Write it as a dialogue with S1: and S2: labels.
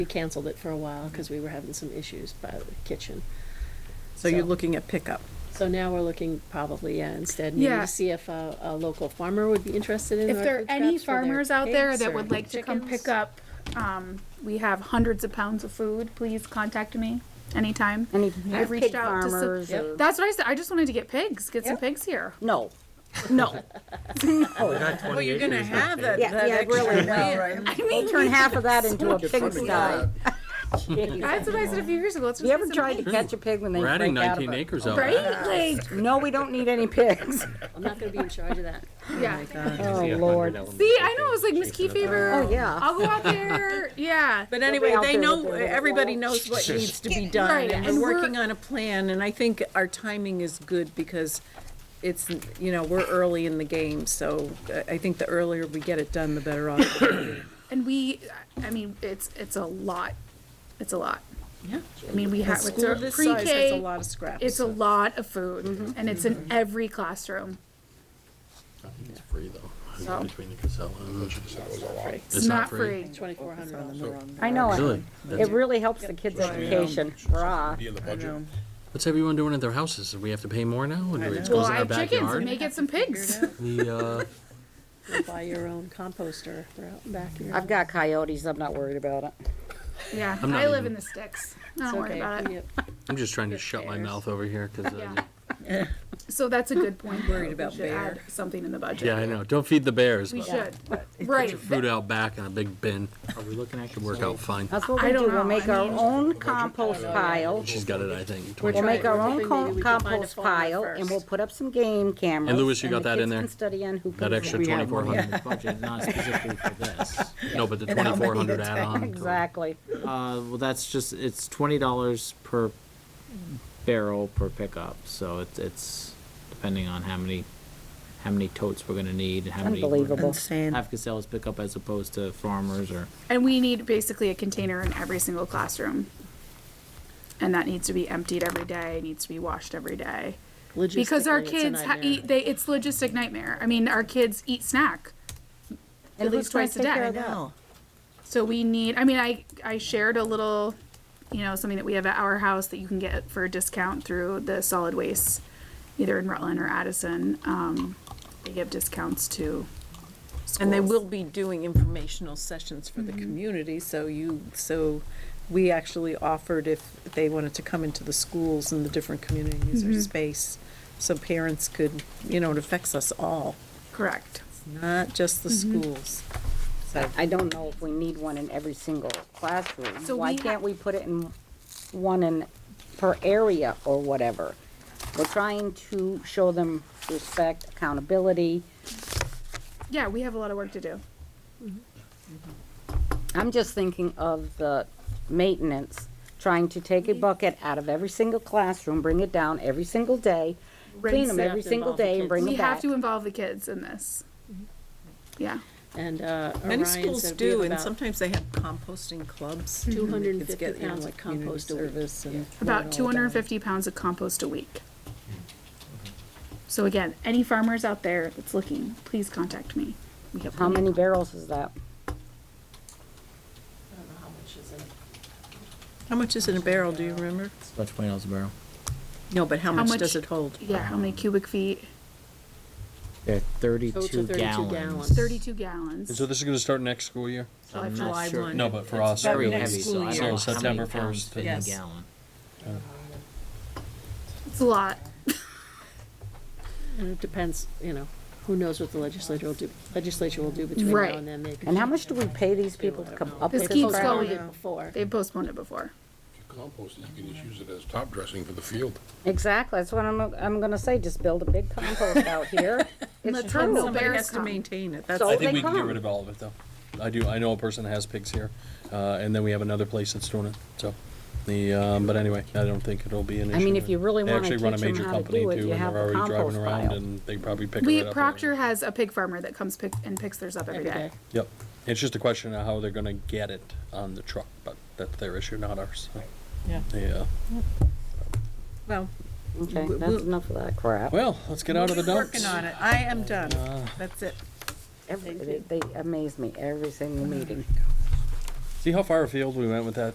S1: We canceled it for a while because we were having some issues by the kitchen.
S2: So you're
S1: So-
S2: looking at pickup.
S1: So now we're looking probably, yeah, instead, maybe
S3: Yeah.
S1: to see if a, a local farmer would be interested in.
S3: If
S1: our
S3: there are
S1: food
S3: any
S1: scraps for their
S3: farmers out there
S1: pigs
S3: that
S1: or
S3: would like to come
S1: chickens.
S3: pick up, um, we have hundreds of pounds of food, please contact me anytime.
S4: Any
S3: I've reached
S4: pig
S3: out to some-
S4: farmers or-
S3: That's what I said, I just wanted to get pigs, get some pigs here.
S4: No, no.
S2: Well, you're gonna have that,
S4: Yeah, yeah, really, no.
S2: right?
S4: We'll turn half of that into a pigsty.
S3: That's what I said a few years ago. Let's just
S4: You ever
S3: get some
S4: tried to
S3: pigs.
S4: catch a pig when they
S5: We're adding
S4: break out of
S5: 19
S4: it?
S5: acres out
S3: Right?
S5: back.
S3: Like,
S4: No, we don't need any pigs.
S1: I'm not gonna be in charge of that.
S3: yeah.
S4: Oh, Lord.
S3: See, I know, it was like Miss Kefever.
S4: Oh, yeah.
S3: I'll go out there, yeah.
S2: But anyway,
S4: out
S2: they
S4: there
S2: know,
S4: with their little
S2: everybody knows what needs to be done,
S3: Right,
S2: and
S3: and
S2: we're
S3: we're-
S2: working on a plan, and I think our timing is good because it's, you know, we're early in the game, so uh, I think the earlier we get it done, the better off.
S3: And we, I mean, it's, it's a lot. It's a lot.
S2: Yeah.
S3: I mean, we have,
S2: School
S3: it's a
S2: this size has a
S3: pre-K,
S2: lot of scraps.
S3: it's a lot of
S4: Mm-hmm.
S3: food and it's in every classroom.
S5: It's free though,
S3: So-
S5: between the Casella and.
S3: It's not free.
S1: Twenty-four hundred.
S4: I know it.
S5: Really?
S4: It really helps the kids' education. Rah.
S6: Be in the budget.
S5: What's everyone doing at their houses? Do we have to pay more now? Or do it
S3: Well,
S5: goes in
S3: I
S5: our
S3: have chickens,
S5: backyard?
S3: make it some pigs.
S5: The, uh,
S1: Buy your own composter, they're out in back here.
S4: I've got coyotes, I'm not worried about it.
S3: Yeah,
S5: not
S3: I live
S5: even-
S3: in the sticks. I
S1: It's
S3: don't worry
S1: okay,
S3: about it.
S1: yep.
S5: I'm just trying to shut my
S1: bears.
S5: mouth over here, cause,
S3: Yeah.
S5: uh,
S3: So that's a good point. though.
S2: Worried
S3: We
S2: about
S3: should
S2: bear.
S3: add Something in the budget.
S5: yeah, I know. Don't feed the bears,
S3: We
S5: but
S3: should, right.
S5: food out back in a big bin. Are we looking at? Should work out fine.
S4: That's what
S3: I
S4: we
S3: don't
S4: do,
S3: know,
S4: we'll make
S3: I
S4: our
S3: mean-
S4: own compost pile.
S5: She's got it, I think.
S1: We're
S4: We'll
S1: trying-
S4: make our
S1: we're
S4: own
S1: hoping
S4: co-
S1: maybe we can find a
S4: compost
S1: farmer
S4: pile, and
S1: first.
S4: we'll put up some game cameras.
S5: And Louis, you got
S4: the
S5: that in
S4: kids
S5: there?
S4: can study on who.
S5: That
S4: picks
S5: extra
S4: what.
S7: We have money
S5: 2400.
S7: in the budget, not specifically for this.
S5: No, but the
S7: And how many
S5: twenty-four hundred
S7: it's-
S5: add-on.
S4: Exactly.
S7: Uh, well, that's just, it's twenty dollars per barrel per pickup, so it's, it's depending on how many, how many totes we're gonna need, and how many. we're gonna
S4: Unbelievable.
S7: Have Casellas pick up as opposed to farmers or,
S3: And we need basically a container in every single classroom. And that needs to be emptied every day, needs to be washed every day. Because our
S1: Logistically, it's a
S3: kids ha-
S1: nightmare.
S3: eat, they, it's logistic nightmare. I mean, our kids eat snack.
S4: And
S3: At
S4: who's
S3: least
S4: gonna
S3: twice a
S4: take care
S3: day.
S4: of that?
S3: So we need, I mean, I, I shared a little, you know, something that we have at our house that you can get for a discount through the solid waste, either in Rutland or Addison. Um, they give discounts to
S2: And they
S3: schools.
S2: will be doing informational sessions for the community, so you, so we actually offered if they wanted to come into the schools and the different communities or space, so parents could, you know, it affects us all,
S3: Correct.
S2: not just the schools. So,
S4: I don't know if we need one in every single classroom.
S3: So
S4: Why
S3: we ha-
S4: can't we put it in one in, per area or whatever? We're trying to show them respect, accountability.
S3: Yeah, we have a lot of work to do.
S4: I'm just thinking of the maintenance, trying to take a bucket out of every single classroom, bring it down every single day, clean
S3: Rinse
S4: them
S3: it.
S4: every single
S1: involve the
S4: day and
S1: kids.
S4: bring
S3: We
S4: them
S3: have
S4: back.
S3: to involve the kids in this. Yeah.
S1: And, uh,
S2: Many
S1: Orion
S2: schools
S1: said we have
S2: do, and
S1: about-
S2: sometimes they have composting clubs.
S1: Mhm. 250
S2: Kids get, you know,
S1: pounds of
S2: like community
S1: compost a week.
S2: service and
S3: About
S2: all
S3: two hundred and
S2: that.
S3: fifty pounds of compost a week. So again, any farmers out there that's looking, please contact me. We have
S4: How many barrels is that?
S2: How much is in a barrel, do you remember?
S7: it's about twenty dollars a barrel.
S2: No, but how much
S3: much-
S2: does it hold?
S3: Yeah, how many cubic feet?
S7: They're
S1: Total
S7: thirty-two
S1: 32
S7: gallons.
S1: gallons.
S3: Thirty-two gallons.
S5: this is gonna start next school year?
S7: I'm not
S2: July
S7: sure.
S2: one.
S5: No, but for us,
S7: It's very
S2: Starting next
S7: heavy,
S2: school
S7: so I don't
S2: year.
S7: know how many
S5: So September
S7: pounds
S5: 1st.
S7: fit in a
S2: Yes.
S7: gallon.
S3: It's a lot.
S1: And it depends, you know, who knows what the legislature will do, legislature will do between
S3: Right.
S1: now and then. They could
S4: And how much do we pay these people to come up
S3: This
S4: with this?
S3: keeps
S4: crap?
S3: going.
S1: Did Before.
S3: They postponed it before.
S6: Compost, you can just use it as top dressing for the field.
S4: Exactly, that's what I'm, I'm gonna say, just build a big compost out here. It's
S3: Let's hope
S4: true.
S3: somebody-
S2: Somebody
S3: bears
S2: has to
S3: come.
S2: maintain it, that's.
S4: So
S5: I
S4: Oh, they
S5: think we can get
S4: come.
S5: rid of all of it, though. I do, I know a person that has pigs here, uh, and then we have another place that's doing it, so. The, um, but anyway, I don't think it'll be an issue.
S4: I mean, if you really
S5: They
S4: wanna
S5: actually run a
S4: teach 'em
S5: major
S4: how to
S5: company
S4: do it,
S5: too,
S4: you
S5: and
S4: have
S5: they're
S4: the
S5: already driving
S4: compost
S5: around
S4: pile.
S5: and they probably pick it right
S3: We,
S5: up. and-
S3: Proctor has a pig farmer that comes pick, and picks theirs up every
S1: Every
S3: day.
S1: day.
S5: Yep, it's just a question of how they're gonna get it on the truck, but that's their issue, not ours, so. uh,
S2: Yeah.
S5: Yeah,
S2: Well,
S4: Okay,
S2: We-
S4: that's
S2: we-
S4: enough of that crap.
S5: well, let's get out of the dumps. Ah.
S2: working on it, I am done, that's it.
S4: Every- They they amaze me every single meeting.
S5: See how far afield we went with that?